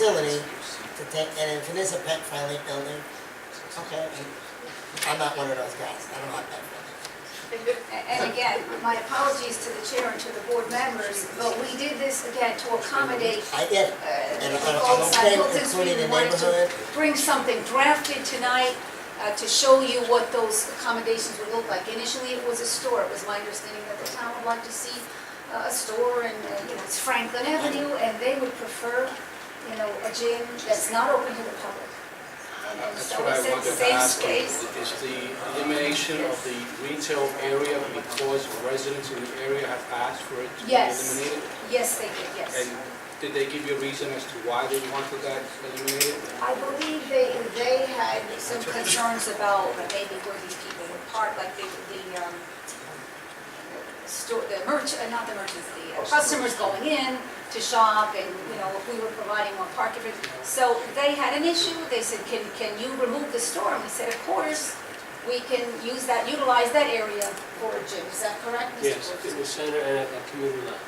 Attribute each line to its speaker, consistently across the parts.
Speaker 1: facility to take, and if it is a pet friendly building, okay, I'm not one of those guys, I don't like pet friendly.
Speaker 2: And again, my apologies to the chair and to the board members, but we did this again to accommodate
Speaker 1: I get it,
Speaker 2: uh,
Speaker 1: and
Speaker 2: the
Speaker 1: I- I'm
Speaker 2: folks
Speaker 1: okay
Speaker 2: on
Speaker 1: with
Speaker 2: Hilton Street.
Speaker 1: including
Speaker 2: We
Speaker 1: the
Speaker 2: wanted
Speaker 1: neighborhood,
Speaker 2: to bring something drafted tonight uh, to show you what those accommodations would look like. Initially, it was a store. It was my understanding that the town would like to see uh, a store and, uh, you know, it's Franklin Avenue, and they would prefer, you know, a gym that's not open to the public. And- And
Speaker 3: That's
Speaker 2: so
Speaker 3: what I
Speaker 2: it's a
Speaker 3: wanted to
Speaker 2: safe
Speaker 3: ask, you,
Speaker 2: space.
Speaker 3: is the elimination of the retail area because residents in the area have asked for it to be
Speaker 2: Yes.
Speaker 3: eliminated?
Speaker 2: Yes, they did, yes.
Speaker 3: And did they give you a reason as to why they wanted that eliminated?
Speaker 2: I believe they, they had some concerns about maybe where these people would park, like the, the, um, store, the merch, uh, not the merchants, the uh, customers going in to shop and, you know, if we were providing more parking. for- So they had an issue, they said, can, can you remove the store? And we said, of course, we can use that, utilize that area for a gym, is that correct, Mr.
Speaker 4: Yes,
Speaker 2: Woods?
Speaker 4: in the center and at the community line.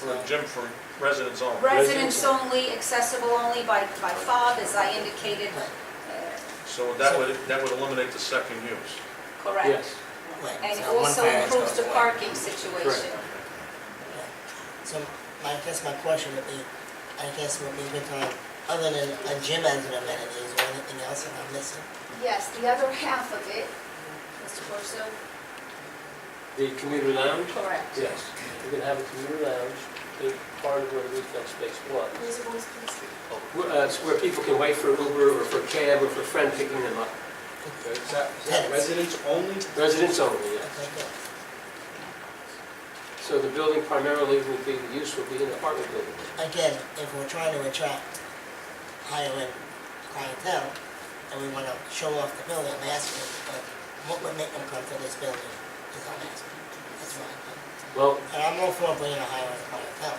Speaker 5: For a gym for residents only.
Speaker 2: Residents only, accessible only by, by fob, as I indicated, uh,
Speaker 5: So that would, that would eliminate the second use.
Speaker 2: correct?
Speaker 4: Yes.
Speaker 1: right,
Speaker 2: And it
Speaker 1: so one
Speaker 2: also
Speaker 1: variance
Speaker 2: improves
Speaker 1: goes
Speaker 2: the
Speaker 1: away.
Speaker 2: parking situation.
Speaker 1: So my, I guess my question would be, I guess would be, because other than a gym as an amenity, is there anything else that I'm missing?
Speaker 2: Yes, the other half of it, Mr. Corso?
Speaker 4: The community lounge?
Speaker 2: Correct.
Speaker 4: Yes, we're gonna have a community lounge, the part of where retail space was.
Speaker 2: Mr. Voice, please.
Speaker 4: Where, uh, it's where people can wait for Uber or for a cab or for a friend picking them up.
Speaker 3: Is that, is that residents only?
Speaker 4: Residents only, yes.
Speaker 1: Okay, good.
Speaker 4: So the building primarily will be, the use will be an apartment building.
Speaker 1: again, if we're trying to attract higher end clientele, and we wanna show off the building, I'm asking, uh, what would make them come to this building, is I'm asking, that's why.
Speaker 4: Well,
Speaker 1: And I'm all for bringing a higher end clientele,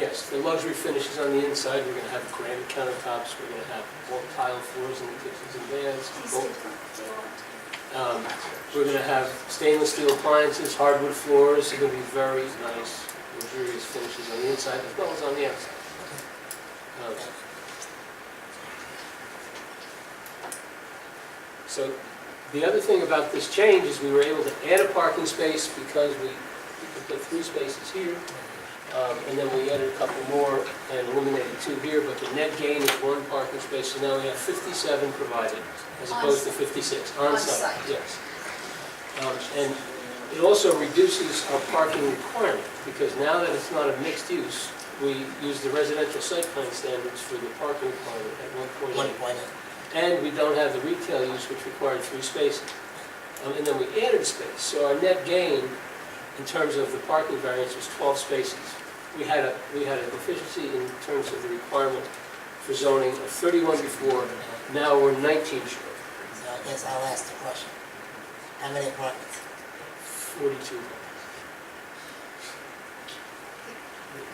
Speaker 4: yes, the luxury finishes on the inside, we're gonna have granite countertops, we're gonna have all tile floors in the kitchens and baths. Um, We're gonna have stainless steel appliances, hardwood floors, they're gonna be very nice, luxurious finishes on the inside as well as on the outside. Um, So, the other thing about this change is we were able to add a parking space because we we could put three spaces here, um, and then we added a couple more and eliminated two here, but the net gain is one parking space, so now we have 57 provided as opposed to 56 on site.
Speaker 2: On-site.
Speaker 4: Yes. Um, And it also reduces our parking requirement, because now that it's not a mixed use, we use the residential site plan standards for the parking requirement at
Speaker 1: one
Speaker 4: 1.8.
Speaker 1: point eight.
Speaker 4: And we don't have the retail use, which required three spaces. Um, And then we added space, so our net gain in terms of the parking variance was 12 spaces. We had a, we had a deficiency in terms of the requirement for zoning of 31 before, now we're 19 short,
Speaker 1: So I guess I'll ask the question, how many apartments?
Speaker 4: 42.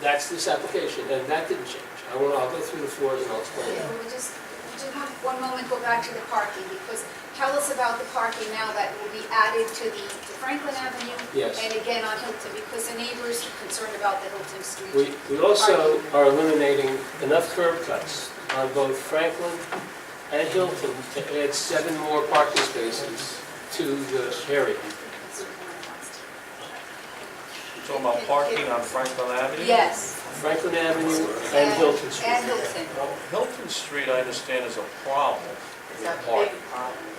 Speaker 4: That's this application, and that didn't change. I will, I'll go through the floors and I'll explain.
Speaker 2: Yeah, we just, we just have one moment, go back to the parking, because tell us about the parking now that will be added to the to Franklin Avenue.
Speaker 4: Yes.
Speaker 2: And again on Hilton, because the neighbors are concerned about the Hilton
Speaker 4: We,
Speaker 2: Street.
Speaker 4: we also are eliminating enough curb cuts on both Franklin and Hilton to add seven more parking spaces to the area.
Speaker 5: You're talking about parking on Franklin Avenue?
Speaker 2: Yes.
Speaker 4: Franklin Avenue and Hilton
Speaker 2: And
Speaker 4: Street.
Speaker 2: Hilton.
Speaker 5: Well, Hilton Street, I understand, is a problem with parking.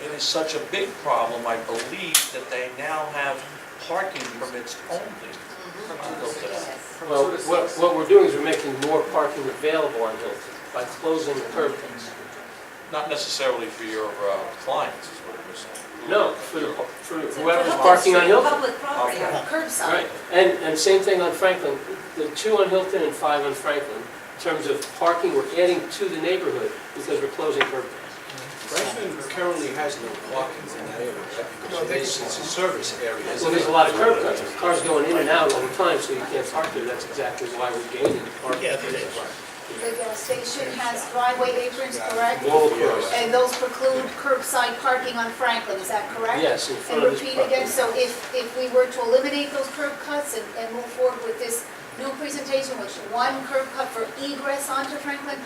Speaker 5: It is such a big problem, I believe, that they now have parking permits only on Hilton Avenue.
Speaker 4: Well, what, what we're doing is we're making more parking available on Hilton by closing the curb cuts.
Speaker 5: Not necessarily for your uh, clients, is what you're saying.
Speaker 4: No, for the- for whoever's parking on Hilton.
Speaker 2: Public property, on curbside.
Speaker 4: Right, and, and same thing on Franklin, the two on Hilton and five on Franklin, in terms of parking, we're adding to the neighborhood because we're closing curb cuts.
Speaker 3: Franklin currently has no parking in that area, because it is, it's a service area.
Speaker 4: Well,
Speaker 3: isn't
Speaker 4: there's
Speaker 3: it?
Speaker 4: a lot of curb cuts, cars going in and out all the time, so you can't park there, that's exactly why we're gaining parking.
Speaker 6: Yeah, there is.
Speaker 2: The gas station has driveway aprons, correct?
Speaker 4: Wall across.
Speaker 2: And those preclude curbside parking on Franklin, is that correct?
Speaker 4: Yes, in
Speaker 2: And
Speaker 4: front of this
Speaker 2: repeat again,
Speaker 4: property.
Speaker 2: so if, if we were to eliminate those curb cuts and, and move forward with this new presentation, which one curb cut for egress onto Franklin,